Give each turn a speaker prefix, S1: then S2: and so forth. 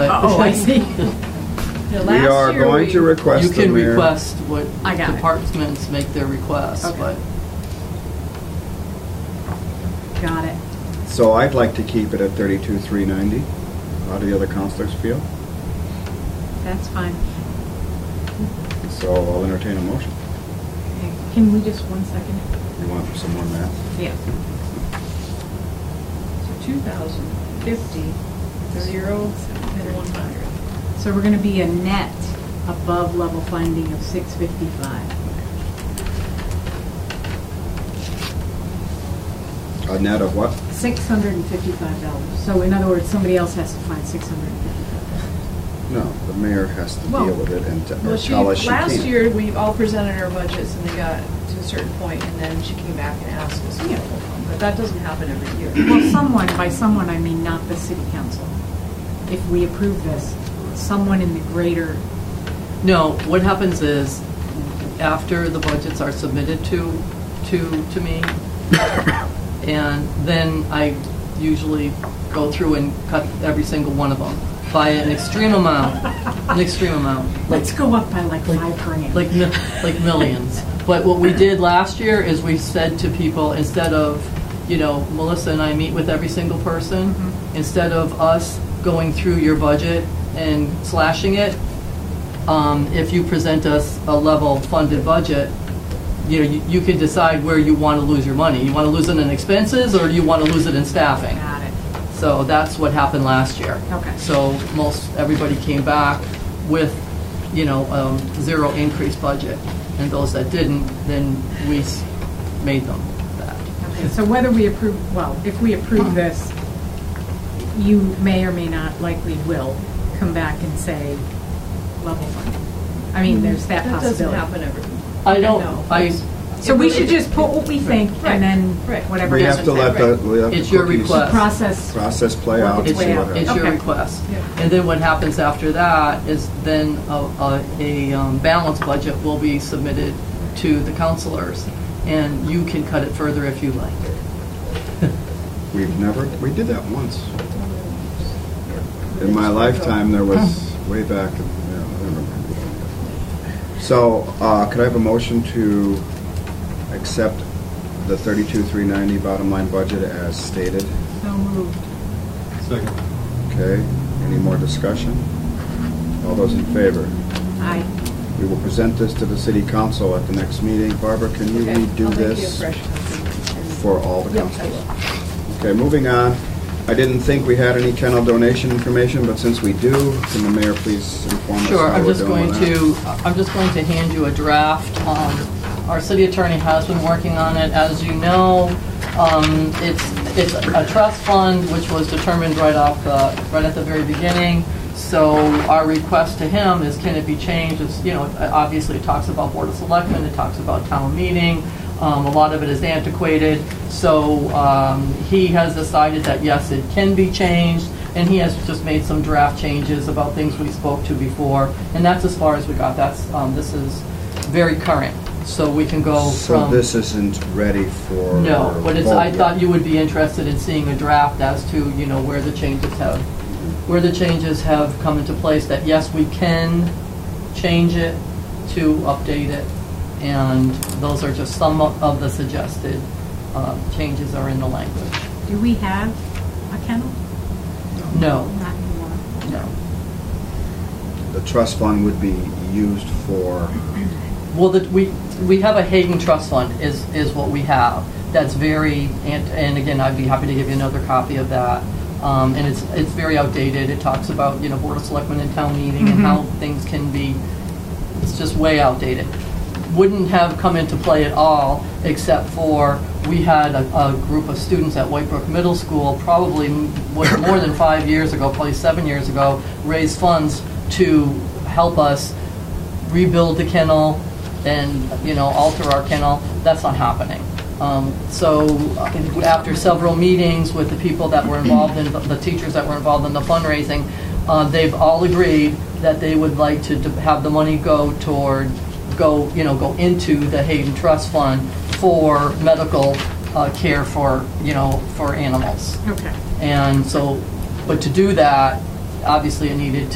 S1: Oh, I see. Yeah,
S2: We
S1: last
S2: are
S1: year
S2: going
S1: we-
S2: to request
S3: You
S2: the
S3: can
S2: mayor.
S3: request what
S1: I got it.
S3: departments make their requests,
S1: Okay.
S3: but
S1: Got it.
S2: So I'd like to keep it at thirty-two, three ninety. How do the other counselors feel?
S1: That's fine.
S2: So I'll entertain a motion.
S4: Can we just one second?
S2: You want some more math?
S1: Yeah.
S4: So two thousand fifty, zero, and one hundred.
S1: So we're going to be a net above level funding of 655.
S2: A net of what?
S1: $655. So in other words, somebody else has to find 655.
S2: No, the mayor has to
S4: Well,
S2: deal with it and t- or
S4: Well, she,
S2: tell us she can't.
S4: last year, we all presented our budgets and they got to a certain point and then she came back and asked us, you know, but that doesn't happen every year.
S1: Well, someone, by someone, I mean not the city council. If we approve this, someone in the greater,
S3: No, what happens is, after the budgets are submitted to, to, to me, and then I usually go through and cut every single one of them by an extreme amount, an extreme amount,
S1: let's go up by like five grand.
S3: like, mi- like millions. But what we did last year is we said to people, instead of, you know, Melissa and I meet with every single person, instead of us going through your budget and slashing it, um, if you present us a level funded budget, you know, you- you can decide where you want to lose your money. You want to lose it in expenses, or you want to lose it in staffing?
S1: Got it.
S3: So that's what happened last year.
S1: Okay.
S3: So most, everybody came back with, you know, um, zero increase budget. And those that didn't, then we s- made them that.
S1: Okay, so whether we approve, well, if we approve this, you may or may not, likely will, come back and say level fund. I mean, there's that
S4: Mm-hmm. That doesn't
S1: possibility.
S4: happen every.
S3: I don't,
S4: No.
S3: I,
S1: So we should just put what we think
S4: Right,
S1: and then
S4: right.
S1: whatever.
S2: We have to let the, we have to.
S3: It's your
S2: cookies
S3: request.
S1: Process,
S2: Process play out.
S1: Work
S2: and
S3: it's
S1: its
S2: see
S1: way
S2: what
S1: out.
S3: your,
S2: happens.
S3: it's your
S1: Okay.
S3: request.
S4: Yeah.
S3: And then what happens after that is then a, a, a um, balanced budget will be submitted to the counselors. And you can cut it further if you like.
S2: We've never, we did that once. In my lifetime, there was, way back, in- yeah, I don't remember. So, uh, could I have a motion to accept the thirty-two, three ninety bottom line budget as stated?
S1: so moved.
S5: Second.
S2: Okay, any more discussion? All those in favor?
S1: Aye.
S2: We will present this to the city council at the next meeting. Barbara, can you
S4: Okay, I'll
S2: redo
S4: make you a
S2: this
S4: fresh copy and-
S2: for all the
S4: Yep, I
S2: councilors?
S4: will.
S2: Okay, moving on. I didn't think we had any kennel donation information, but since we do, can the mayor please inform us
S3: Sure,
S2: how
S3: I'm
S2: we're
S3: just
S2: doing
S3: going
S2: on that?
S3: to, I'm just going to hand you a draft. Um, Our city attorney has been working on it. As you know, um, it's, it's a trust fund, which was determined right off the, right at the very beginning. So our request to him is, can it be changed? It's, you know, it obviously it talks about Board of Selectmen, it talks about town meeting. Um, A lot of it is antiquated. So um, he has decided that, yes, it can be changed. And he has just made some draft changes about things we spoke to before, and that's as far as we got. That's, um, this is very current, so we can go
S2: So
S3: from.
S2: this isn't ready for...
S3: No, but it's, I
S2: vote yet.
S3: thought you would be interested in seeing a draft as to, you know, where the changes have, where the changes have come into place, that yes, we can change it to update it. And those are just some of of the suggested, uh, changes are in the language.
S1: Do we have a kennel?
S3: No,
S1: Not anymore.
S3: no.
S2: The trust fund would be used for,
S3: Well, that we, we have a Hagen Trust Fund is, is what we have. That's very, and, and again, I'd be happy to give you another copy of that. Um, and it's, it's very outdated. It talks about, you know, Board of Selectmen and town meeting and how things can be, it's just way outdated. Wouldn't have come into play at all, except for we had a, a group of students at Whitebrook Middle School, probably m- was more than five years ago, probably seven years ago, raise funds to help us rebuild the kennel and, you know, alter our kennel, that's not happening. Um, So uh, after several meetings with the people that were involved in, the teachers that were involved in the fundraising, uh, they've all agreed that they would like to d- have the money go toward, go, you know, go into the Hayden Trust Fund for medical uh, care for, you know, for animals.
S1: Okay.
S3: And so, but to do that, obviously it needed